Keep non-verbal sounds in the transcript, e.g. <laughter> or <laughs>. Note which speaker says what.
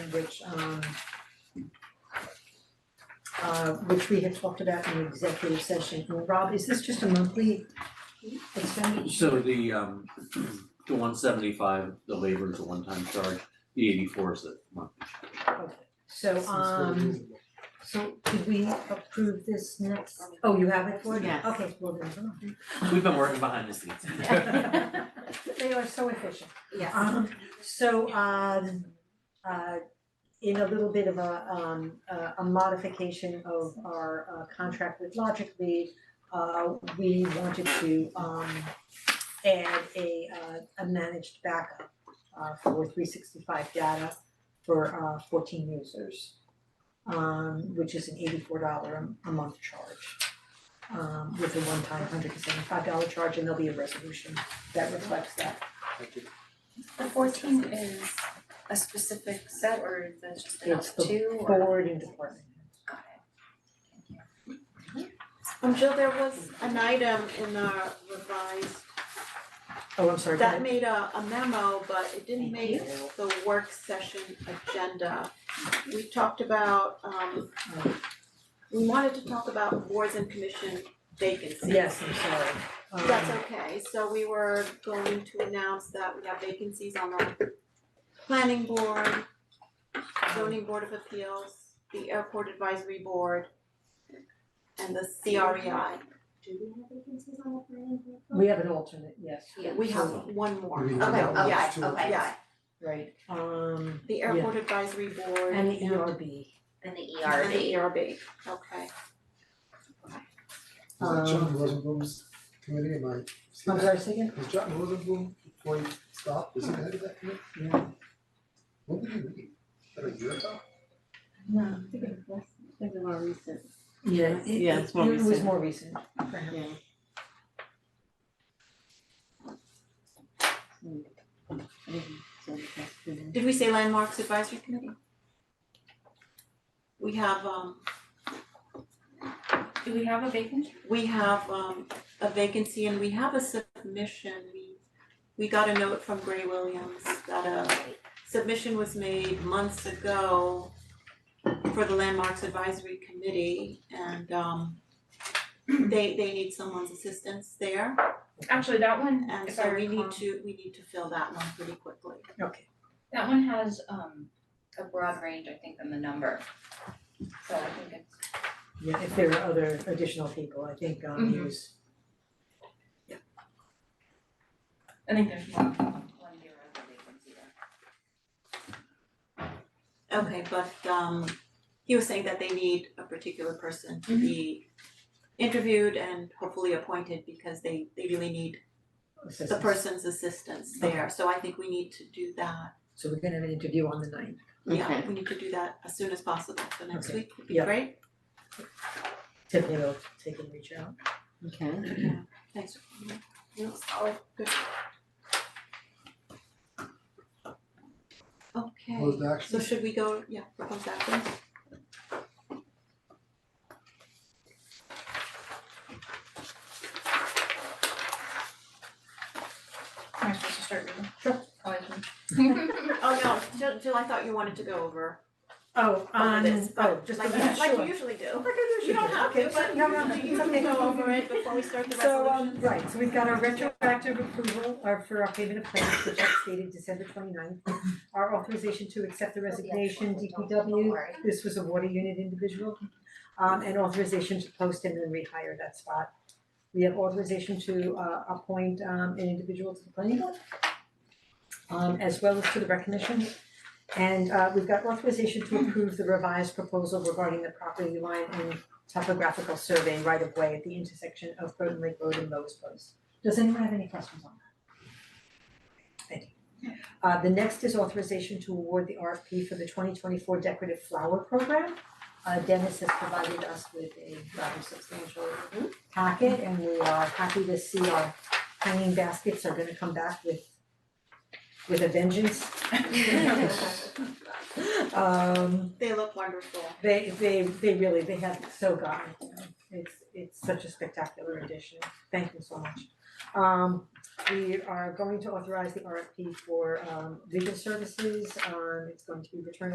Speaker 1: which um uh which we had talked about in executive session, And Rob, is this just a monthly expenditure?
Speaker 2: So the um, <clears throat> the one seventy-five, the labor is a one-time charge, the eighty-four is the monthly.
Speaker 1: Okay, so um, so could we approve this next, oh, you have it for it?
Speaker 3: Yes.
Speaker 1: Okay, well then, come on.
Speaker 2: We've been working behind the scenes.
Speaker 1: <laughs> They are so efficient.
Speaker 4: Uh,
Speaker 3: Yes.
Speaker 1: Um, so, um, uh, in a little bit of a, um, a- a modification of our uh, contract with Logically, uh, we wanted to, um, add a, uh, a managed backup, uh, for three sixty-five data for, uh, fourteen users, um, which is an eighty-four dollar a month charge, um, with a one-time hundred and seventy-five dollar charge, and there'll be a resolution that reflects that.
Speaker 4: The fourteen is a specific set or is that just enough
Speaker 1: It's the
Speaker 4: two or?
Speaker 1: Forward and department.
Speaker 4: Got it.
Speaker 3: Um, Jill, there was an item in our revised,
Speaker 1: Oh, I'm sorry, go
Speaker 3: that
Speaker 1: ahead.
Speaker 3: made a, a memo, but it didn't make
Speaker 1: Thank you.
Speaker 3: the work session agenda. We talked about, um, we wanted to talk about boards and commission vacancies.
Speaker 1: Yes, I'm sorry.
Speaker 3: That's
Speaker 1: Um,
Speaker 3: okay, so we were going to announce that we have vacancies on the planning board, zoning board of appeals, the airport advisory board, and the E CREI.
Speaker 5: Do we have vacancies on the planning board?
Speaker 1: We have an alternate, yes,
Speaker 3: We have one more,
Speaker 6: We
Speaker 3: okay, oh,
Speaker 6: have
Speaker 1: one more.
Speaker 3: yeah,
Speaker 6: Two.
Speaker 4: Okay, okay,
Speaker 3: yeah,
Speaker 1: right, um,
Speaker 3: the airport advisory board
Speaker 1: and the E ERB.
Speaker 4: and the E
Speaker 3: and the E
Speaker 4: ERB.
Speaker 3: ERB, okay.
Speaker 6: Was that John
Speaker 1: Um,
Speaker 6: Rosenblum's committee, am I? is he
Speaker 1: I'm
Speaker 6: the-
Speaker 1: sorry, second?
Speaker 6: Was John Rosenblum, before he stopped, was he the head of that committee?
Speaker 1: No.
Speaker 6: When did he leave? About a year ago?
Speaker 1: Yeah, it,
Speaker 7: Yeah, it's
Speaker 1: it-
Speaker 7: more
Speaker 1: it was
Speaker 7: recent.
Speaker 1: more recent.
Speaker 3: Did we say landmarks advisory committee? We have, um,
Speaker 4: Do we have a vacant?
Speaker 3: we have um a vacancy and we have a submission, we we got a note from Gray Williams that a submission was made months ago for the Landmarks Advisory Committee and um they they need someone's assistance there
Speaker 8: Actually, that one,
Speaker 3: and
Speaker 8: if I
Speaker 3: so Uh, we
Speaker 8: recall,
Speaker 3: need to, we need to fill that one pretty quickly.
Speaker 1: Okay,
Speaker 4: That one has um a broad range, I think, than the number. So I think it's
Speaker 1: yeah, if there are other additional people, I think, um,
Speaker 4: Mhm.
Speaker 1: use,
Speaker 4: I think there's one one zero that they can see there.
Speaker 3: Okay, but um he was saying that they need a particular person to
Speaker 8: Mm-hmm.
Speaker 3: be interviewed and hopefully appointed because they they really need the
Speaker 1: assistants.
Speaker 3: person's assistance there, so I think we need to do that.
Speaker 1: So we're gonna have an interview on the ninth.
Speaker 3: Yeah,
Speaker 7: Okay.
Speaker 3: we need to do that as soon as possible, so next
Speaker 1: Okay.
Speaker 3: week would be
Speaker 1: Yeah.
Speaker 3: great.
Speaker 1: Tiffany will take and reach out.
Speaker 7: Okay.
Speaker 3: Thanks. Yeah, solid, good. Okay,
Speaker 6: Closed action?
Speaker 3: so should we go, yeah, propose action?
Speaker 8: am I supposed to start reading?
Speaker 4: Oh, I can.
Speaker 3: Oh, no, Jill, Jill, I thought you wanted to go over
Speaker 1: Oh,
Speaker 3: over this,
Speaker 1: oh,
Speaker 3: but
Speaker 1: just
Speaker 3: um, like
Speaker 1: like,
Speaker 3: you,
Speaker 1: yeah,
Speaker 3: like
Speaker 1: sure.
Speaker 3: you usually do.
Speaker 1: You
Speaker 3: You <laughs> don't have to, but
Speaker 1: No, no, no,
Speaker 3: you
Speaker 1: it's
Speaker 3: usually
Speaker 1: okay.
Speaker 3: go over it before we start the
Speaker 1: So, um,
Speaker 3: resolution.
Speaker 1: right, so we've got our retroactive approval or for our payment of claims, which is dated December 29th. Our authorization to accept the resignation,
Speaker 8: Oh,
Speaker 4: Don't
Speaker 1: DPW,
Speaker 4: worry.
Speaker 1: this was a water unit individual. Um, and authorization to post and then rehire that spot. We have authorization to uh appoint um an individual to the planning board. Um, as well as to the rec commission. And uh we've got authorization to approve the revised proposal regarding the property line and topographical survey right of way at the intersection of Groton Lake Road and Lowe's Place. Does anyone have any questions on that? Thank you. Uh, the next is authorization to award the RFP for the twenty twenty-four decorative flower program. Uh, Dennis has provided us with a rather substantial packet and we are happy to see our hanging baskets are gonna come back with with a vengeance.
Speaker 8: <laughs>
Speaker 1: <laughs> Um,
Speaker 3: They look wonderful.
Speaker 1: they they they really, they have so gotten, it, you know. it's it's such a spectacular addition, thank you so much. Um we are going to authorize the RFP for um legal services, um it's going to be returned